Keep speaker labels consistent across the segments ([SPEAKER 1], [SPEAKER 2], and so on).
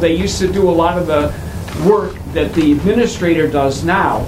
[SPEAKER 1] They used to do a lot of the work that the administrator does now.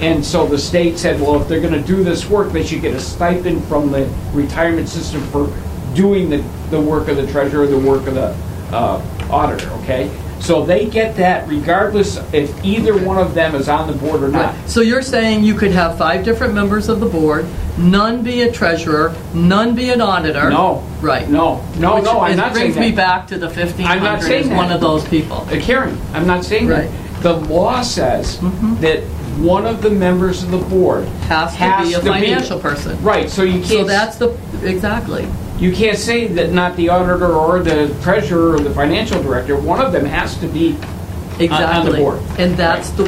[SPEAKER 1] And so the state said, well, if they're going to do this work, they should get a stipend from the retirement system for doing the, the work of the treasurer, the work of the uh, auditor, okay? So they get that regardless if either one of them is on the board or not.
[SPEAKER 2] So you're saying you could have five different members of the board, none be a treasurer, none be an auditor?
[SPEAKER 1] No.
[SPEAKER 2] Right.
[SPEAKER 1] No, no,
[SPEAKER 2] Which
[SPEAKER 1] no, I'm
[SPEAKER 2] is-
[SPEAKER 1] not saying that.
[SPEAKER 2] Brings me back to the 1,500
[SPEAKER 1] saying
[SPEAKER 2] as
[SPEAKER 1] that.
[SPEAKER 2] one of those people.
[SPEAKER 1] Uh, Karen, I'm not saying that.
[SPEAKER 2] Right. Mm-hmm.
[SPEAKER 1] The law says that one of the members of the board
[SPEAKER 2] Has to be a financial person.
[SPEAKER 1] Right, so you
[SPEAKER 2] So
[SPEAKER 1] can't,
[SPEAKER 2] that's the, exactly.
[SPEAKER 1] you can't say that not the auditor or the treasurer or the financial director, one of them has to be, on the
[SPEAKER 2] Exactly.
[SPEAKER 1] board.
[SPEAKER 2] And that's the,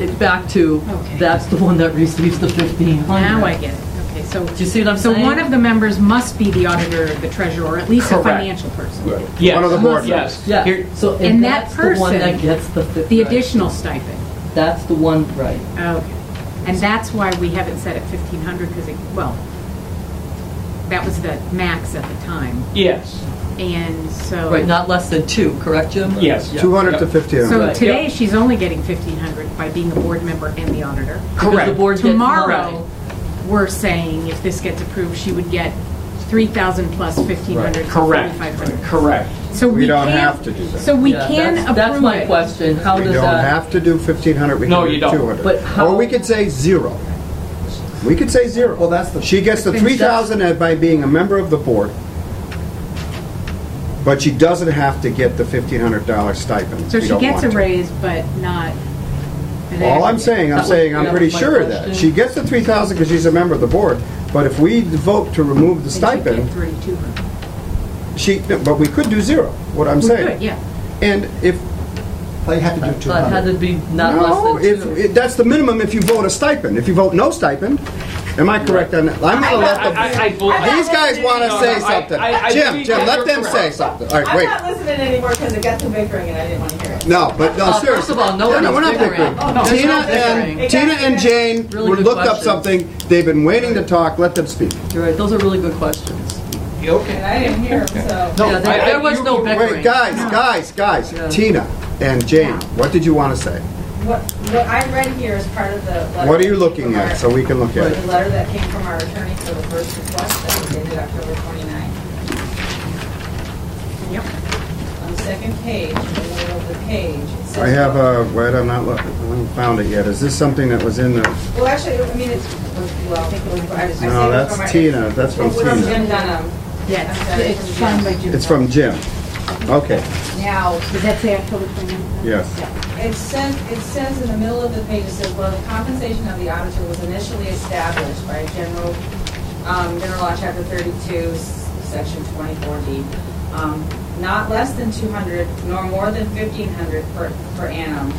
[SPEAKER 2] it- back to,
[SPEAKER 3] Okay.
[SPEAKER 2] that's the one that receives the
[SPEAKER 3] Well,
[SPEAKER 2] 1,500.
[SPEAKER 3] now I get it. Okay, so.
[SPEAKER 2] Do you see what I'm saying?
[SPEAKER 3] So one of the members must be the auditor, the treasurer, or at least a
[SPEAKER 1] Correct.
[SPEAKER 3] financial person.
[SPEAKER 1] yes.
[SPEAKER 4] One of the board
[SPEAKER 1] Yes.
[SPEAKER 2] Yeah,
[SPEAKER 1] Here-
[SPEAKER 2] so, and
[SPEAKER 3] And that
[SPEAKER 2] that's the one
[SPEAKER 3] person-
[SPEAKER 2] that gets the... fif-
[SPEAKER 3] The
[SPEAKER 2] right.
[SPEAKER 3] additional stipend.
[SPEAKER 2] That's the one, right.
[SPEAKER 3] Okay. And that's why we haven't set it 1,500, because it, well, that was the max at the time.
[SPEAKER 1] Yes,
[SPEAKER 3] And so.
[SPEAKER 2] Right, not less than two, correct, Jim?
[SPEAKER 1] yes.
[SPEAKER 2] Yeah.
[SPEAKER 4] 200 to
[SPEAKER 1] Yep.
[SPEAKER 4] 1,500.
[SPEAKER 3] So
[SPEAKER 2] Right.
[SPEAKER 3] today,
[SPEAKER 1] Yep.
[SPEAKER 3] she's only getting 1,500 by being a board member and the auditor.
[SPEAKER 2] Because the
[SPEAKER 1] Correct.
[SPEAKER 2] board gets...
[SPEAKER 3] Tomorrow, we're saying if this gets approved, she would get 3,000 plus 1,500, so
[SPEAKER 1] Correct.
[SPEAKER 3] 4,500.
[SPEAKER 1] Correct.
[SPEAKER 3] So
[SPEAKER 4] We don't
[SPEAKER 3] can't-
[SPEAKER 4] have to do that.
[SPEAKER 3] So we
[SPEAKER 2] Yeah,
[SPEAKER 3] can
[SPEAKER 2] that's-
[SPEAKER 3] approve it.
[SPEAKER 2] That's my question, how
[SPEAKER 4] We
[SPEAKER 2] does
[SPEAKER 4] don't
[SPEAKER 2] that...
[SPEAKER 4] have to do 1,500, we
[SPEAKER 1] No,
[SPEAKER 4] can
[SPEAKER 1] you
[SPEAKER 4] do
[SPEAKER 1] don't.
[SPEAKER 4] 200.
[SPEAKER 2] But how-
[SPEAKER 4] Or we could say zero. We could say zero. Well, that's the... She gets the
[SPEAKER 3] Then that's-
[SPEAKER 4] 3,000 by being a member of the board, but she doesn't have to get the $1,500 stipend. if
[SPEAKER 3] So
[SPEAKER 4] you
[SPEAKER 3] she
[SPEAKER 4] don't
[SPEAKER 3] gets
[SPEAKER 4] want
[SPEAKER 3] a
[SPEAKER 4] to.
[SPEAKER 3] raise, but not. an
[SPEAKER 4] All I'm
[SPEAKER 3] aggregate.
[SPEAKER 4] saying, I'm
[SPEAKER 2] That
[SPEAKER 4] saying,
[SPEAKER 2] was-
[SPEAKER 4] I'm
[SPEAKER 2] that
[SPEAKER 4] pretty
[SPEAKER 2] was my
[SPEAKER 4] sure of that.
[SPEAKER 2] question.
[SPEAKER 4] She gets the 3,000 because she's a member of the board, but if we vote to remove the
[SPEAKER 3] And she'd get
[SPEAKER 4] stipend,
[SPEAKER 3] 3,200.
[SPEAKER 4] she, but we could do zero, what I'm
[SPEAKER 3] We
[SPEAKER 4] saying.
[SPEAKER 3] could, yeah.
[SPEAKER 4] And if... They have to do
[SPEAKER 2] But had to uh, be not
[SPEAKER 4] No,
[SPEAKER 2] less
[SPEAKER 4] if,
[SPEAKER 2] than two.
[SPEAKER 4] if- that's the minimum if you vote a stipend. If you vote no stipend, am I correct on that? I'm gonna let
[SPEAKER 1] I- I- I
[SPEAKER 4] them,
[SPEAKER 1] believe-
[SPEAKER 4] these guys
[SPEAKER 1] No,
[SPEAKER 4] wanna
[SPEAKER 1] no, I-
[SPEAKER 4] say something.
[SPEAKER 1] I- I
[SPEAKER 4] Jim,
[SPEAKER 1] think
[SPEAKER 4] Jim,
[SPEAKER 1] that
[SPEAKER 4] let
[SPEAKER 1] you're
[SPEAKER 4] them say
[SPEAKER 1] correct.
[SPEAKER 4] something. All
[SPEAKER 5] I'm
[SPEAKER 4] right,
[SPEAKER 5] not
[SPEAKER 4] wait.
[SPEAKER 5] listening anymore because it got to bickering and I didn't want to hear it.
[SPEAKER 4] No, but, no,
[SPEAKER 2] Uh, first
[SPEAKER 4] seriously.
[SPEAKER 2] of all, no
[SPEAKER 4] No, no, we're
[SPEAKER 2] one is
[SPEAKER 4] not
[SPEAKER 2] bickering.
[SPEAKER 4] bickering.
[SPEAKER 2] Oh, no,
[SPEAKER 4] Tina
[SPEAKER 2] it's not bickering.
[SPEAKER 4] and, Tina and Jane
[SPEAKER 2] Really
[SPEAKER 4] were-
[SPEAKER 2] good
[SPEAKER 4] looked up
[SPEAKER 2] questions.
[SPEAKER 4] something. They've been waiting to talk. Let them speak.
[SPEAKER 2] You're right, those are really good questions.
[SPEAKER 1] Okay.
[SPEAKER 5] And I didn't hear him, so.
[SPEAKER 1] No,
[SPEAKER 2] Yeah,
[SPEAKER 1] I-
[SPEAKER 2] there
[SPEAKER 1] I-
[SPEAKER 2] there was
[SPEAKER 1] you-
[SPEAKER 2] no
[SPEAKER 1] you-
[SPEAKER 2] bickering.
[SPEAKER 4] Wait, guys, guys,
[SPEAKER 2] Yeah.
[SPEAKER 4] guys, Tina and Jane, what did you wanna say?
[SPEAKER 5] What, what I read here is part of the letter.
[SPEAKER 4] What are you
[SPEAKER 5] that came
[SPEAKER 4] looking
[SPEAKER 5] from our-
[SPEAKER 4] at so we can look at
[SPEAKER 5] The
[SPEAKER 4] it?
[SPEAKER 5] letter that came from our attorney for the first request that was dated October 29th.
[SPEAKER 3] Yep.
[SPEAKER 5] On the second page, in the middle of the page, it says.
[SPEAKER 4] I have a, wait, I'm not looking, I haven't found it yet. Is this something that was in the,
[SPEAKER 5] Well, actually, I mean, it's, well, I think it was. I was- I
[SPEAKER 4] no,
[SPEAKER 5] said it was
[SPEAKER 4] that's
[SPEAKER 5] from our-
[SPEAKER 4] Tina, that's from
[SPEAKER 5] It's from
[SPEAKER 4] Tina.
[SPEAKER 5] Jim Dunham.
[SPEAKER 3] Yeah, it's, it's signed by Jim.
[SPEAKER 4] It's from Jim. Okay,
[SPEAKER 5] Now,
[SPEAKER 3] Does that say October 29th?
[SPEAKER 4] yes.
[SPEAKER 5] It says, it says in the middle of the page, it says, well, the compensation of the auditor was initially established by general, um, general law chapter thirty-two, s- section twenty-four D. Um, not less than two hundred nor more than fifteen hundred per, per annum.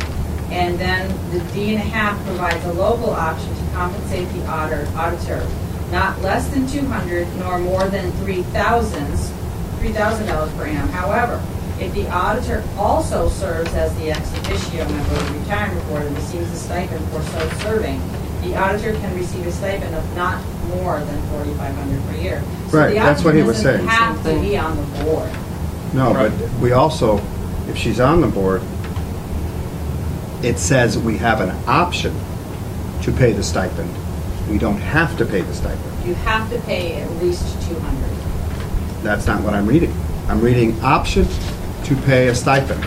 [SPEAKER 5] And then the D and a half provides a local option to compensate the auditor, auditor, not less than two hundred nor more than three thousands three thousand dollars per annum. However, if the auditor also serves as the ex officio member of the retirement board and receives a stipend for so serving, the auditor can receive a stipend of not more than forty-five hundred per year. So
[SPEAKER 4] Right,
[SPEAKER 5] the
[SPEAKER 4] that's what he was
[SPEAKER 5] auditor doesn't
[SPEAKER 4] saying.
[SPEAKER 5] Have to be on the board.
[SPEAKER 4] No, but we also, if she's on the board, it says we have an option to pay the stipend. We don't have to pay the stipend.
[SPEAKER 5] You have to pay at least two hundred.
[SPEAKER 4] That's not what I'm reading. I'm reading option to pay a stipend.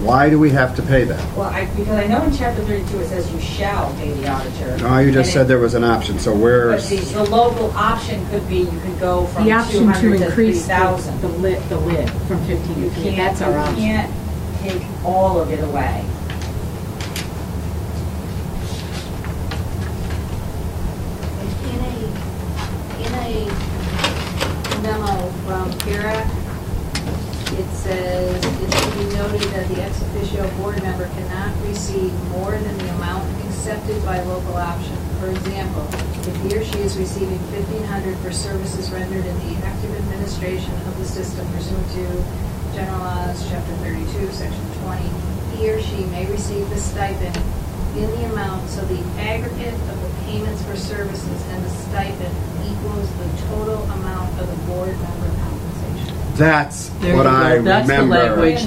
[SPEAKER 4] Why do we have to pay that?
[SPEAKER 5] Well, I, because I know in chapter thirty-two it says you shall pay the auditor.
[SPEAKER 4] No, Ah, you just
[SPEAKER 5] And it-
[SPEAKER 4] said there was an option, so
[SPEAKER 5] But
[SPEAKER 4] where's,
[SPEAKER 5] the, the local option could be, you could go from
[SPEAKER 3] The
[SPEAKER 5] two
[SPEAKER 3] option to
[SPEAKER 5] hundred to three
[SPEAKER 3] increase
[SPEAKER 5] thousand.
[SPEAKER 3] the the lid, the lid from 15
[SPEAKER 5] You
[SPEAKER 3] to 3,
[SPEAKER 5] can't,
[SPEAKER 3] that's our
[SPEAKER 5] you
[SPEAKER 3] option.
[SPEAKER 5] can't take all of it away.
[SPEAKER 6] In a, in a memo from Kira, it says, it should be noted that the ex officio board member cannot receive more than the amount accepted by local option. For example, if he or she is receiving fifteen hundred for services rendered in the active administration of the system pursuant to General Laws, Chapter thirty-two, Section twenty, he or she may receive the stipend in the amount so the aggregate of the payments for services and the stipend equals the total amount of the board member compensation.
[SPEAKER 7] That's
[SPEAKER 4] There
[SPEAKER 7] what
[SPEAKER 4] you go.
[SPEAKER 7] I remember.
[SPEAKER 4] That's the language